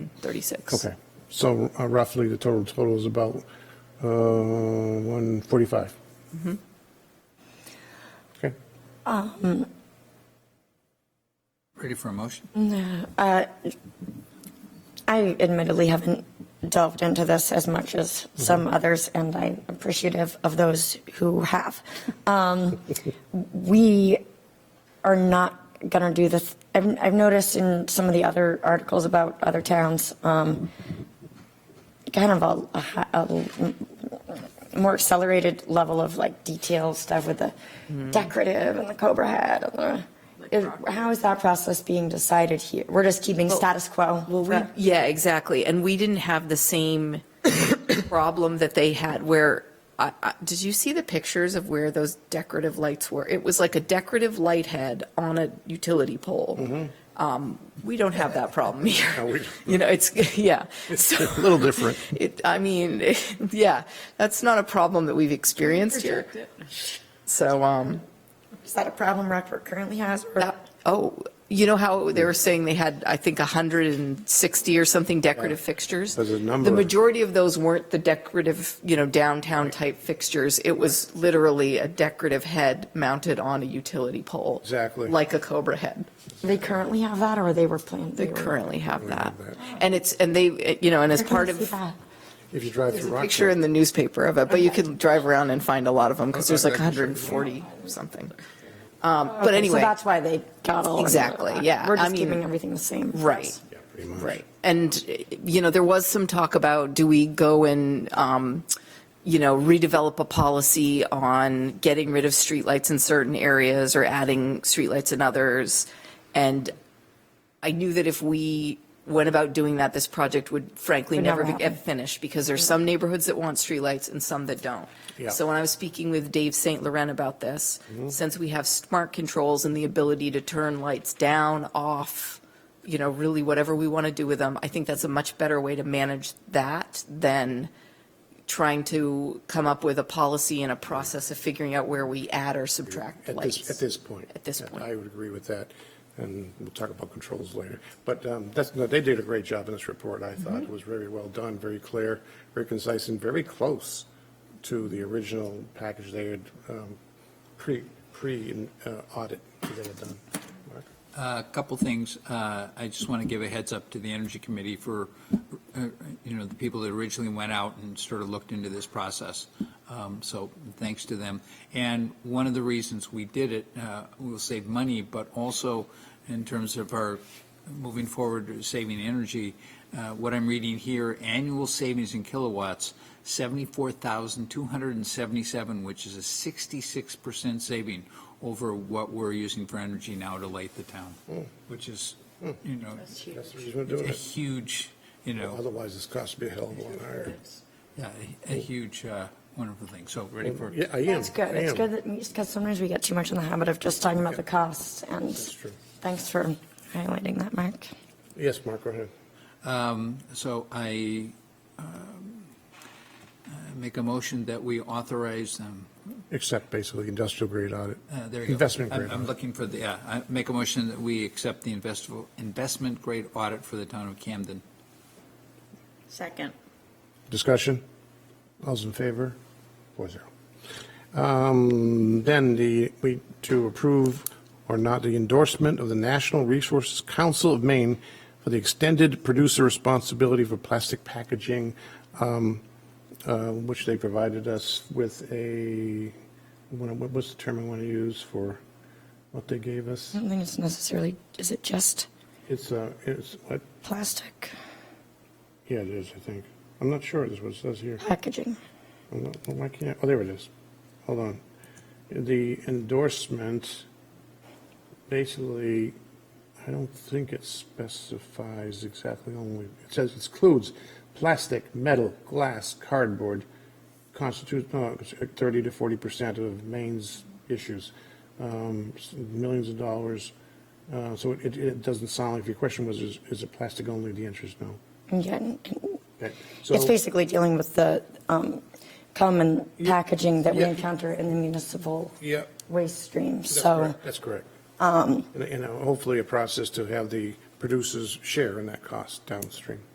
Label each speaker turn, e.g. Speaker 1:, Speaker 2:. Speaker 1: 36.
Speaker 2: Okay, so uh, roughly the total total is about uh, 145.
Speaker 1: Mm-hmm.
Speaker 2: Okay,
Speaker 3: Ready for a motion?
Speaker 4: Uh, I admittedly haven't delved into this as much as some others, and I'm appreciative of those who have. Um, We are not going to do this. I've I've noticed in some of the other articles about other towns, um, kind of a- a hi- a more accelerated level of like detail stuff with the decorative and the cobra head and the. is- how is that process being decided here? We're just keeping status quo.
Speaker 1: Well, we,
Speaker 4: for-
Speaker 1: yeah, exactly. And we didn't have the same problem that they had where, I, I, did you see the pictures of where those decorative lights were? It was like a decorative light head on a utility pole. Um, we don't have that problem
Speaker 2: Mm-hmm. we
Speaker 1: here.
Speaker 2: don't.
Speaker 1: You know, it's, yeah. So
Speaker 2: a little different.
Speaker 1: it, I mean, yeah, that's not a problem that we've experienced here. So, um,
Speaker 4: is that a problem Rockport currently has? Or
Speaker 1: that- oh, you know how they were saying they had, I think, 160 or something decorative fixtures?
Speaker 2: There's a number.
Speaker 1: The majority of those weren't the decorative, you know, downtown-type fixtures. It was literally a decorative head mounted on a utility pole.
Speaker 2: Exactly.
Speaker 1: Like a Cobra head.
Speaker 4: they currently have that, or they were planning.
Speaker 1: They currently have that.
Speaker 2: have that.
Speaker 1: And it's, and they, you know, and as part of,
Speaker 2: if you drive
Speaker 1: there's
Speaker 2: through
Speaker 1: a picture
Speaker 2: Rockport.
Speaker 1: in the newspaper of it, but you can drive around and find a lot of them, because there's like 140 or something. Um, But anyway.
Speaker 4: so that's why they got all. of
Speaker 1: Exactly,
Speaker 4: that.
Speaker 1: yeah.
Speaker 4: We're
Speaker 1: I
Speaker 4: just
Speaker 1: mean-
Speaker 4: keeping everything the same. for
Speaker 1: Right.
Speaker 4: us.
Speaker 2: Yeah, pretty much.
Speaker 1: Right. And, you know, there was some talk about, do we go and, um, you know, redevelop a policy on getting rid of streetlights in certain areas or adding streetlights in others? And I knew that if we went about doing that, this project would frankly
Speaker 4: Would
Speaker 1: never
Speaker 4: never
Speaker 1: be-
Speaker 4: happen.
Speaker 1: get finished because there's some neighborhoods that want streetlights and some that don't.
Speaker 2: Yeah. Mm-hmm.
Speaker 1: So when I was speaking with Dave St. Laurent about this, since we have smart controls and the ability to turn lights down, off, you know, really whatever we want to do with them, I think that's a much better way to manage that than trying to come up with a policy and a process of figuring out where we add or subtract
Speaker 2: At
Speaker 1: lights.
Speaker 2: this, at this point.
Speaker 1: At this
Speaker 2: Yeah,
Speaker 1: point.
Speaker 2: I would agree with that, and we'll talk about controls later. But um, that's, no, they did a great job in this report, I
Speaker 1: Mm-hmm.
Speaker 2: thought. It was very well done, very clear, very concise, and very close to the original package they had um, pre, pre-audit that they had done. Mark?
Speaker 3: A couple things. Uh, I just want to give a heads up to the Energy Committee for, uh, you know, the people that originally went out and sort of looked into this process. Um, So thanks to them. And one of the reasons we did it, uh, we'll save money, but also in terms of our moving forward, saving energy, uh, what I'm reading here, annual savings in kilowatts, 74,277, which is a 66% saving over what we're using for energy now to light the town, which is, you know,
Speaker 2: That's the reason Hmm. we're doing
Speaker 3: a
Speaker 2: it.
Speaker 3: huge, you know,
Speaker 2: Otherwise, this cost would be a hell of a lot higher.
Speaker 3: yeah, a a huge, uh, wonderful thing. So ready for,
Speaker 2: Hmm. Yeah, I am.
Speaker 4: That's good.
Speaker 2: I
Speaker 4: It's
Speaker 2: am.
Speaker 4: good that, because sometimes we get too much in the habit of just talking about the costs, and
Speaker 2: That's true.
Speaker 4: thanks for highlighting that, Mark.
Speaker 2: Yes, Mark, go ahead.
Speaker 3: um, so I um, uh, make a motion that we authorize, um,
Speaker 2: Except basically industrial grade audit.
Speaker 3: Uh, There you go.
Speaker 2: Investment
Speaker 3: I'm-
Speaker 2: grade
Speaker 3: I'm
Speaker 2: audit.
Speaker 3: looking for the, yeah, I make a motion that we accept the investable, investment grade audit for the town of Camden.
Speaker 4: Second.
Speaker 2: Discussion? All's in favor? Four zero. Um, Then the, we, to approve or not the endorsement of the National Resources Council of Maine for the extended producer responsibility for plastic packaging, um, uh, which they provided us with a, what what was the term I want to use for what they gave us?
Speaker 4: I don't think it's necessarily, is it just
Speaker 2: It's, uh, it's, what?
Speaker 4: plastic
Speaker 2: Yeah, it is, I think. I'm not sure, this is what it says here.
Speaker 4: packaging?
Speaker 2: I'm not- Why can't, oh, there it is. Hold on. The endorsement, basically, I don't think it specifies exactly only, it says it includes plastic, metal, glass, cardboard, constitutes no, it's 30 to 40% of Maine's issues, um, s- millions of dollars. Uh, So it, it doesn't sound, like- if your question was, is is it plastic only, the answer is no.
Speaker 4: Yeah, and- and
Speaker 2: Okay, so-
Speaker 4: it's basically dealing with the um, common packaging that we
Speaker 2: yeah.
Speaker 4: encounter in the municipal
Speaker 2: Yeah.
Speaker 4: waste stream,
Speaker 2: That's
Speaker 4: so.
Speaker 2: correct. That's correct. And, you know, hopefully a process to have the producers share in that cost downstream.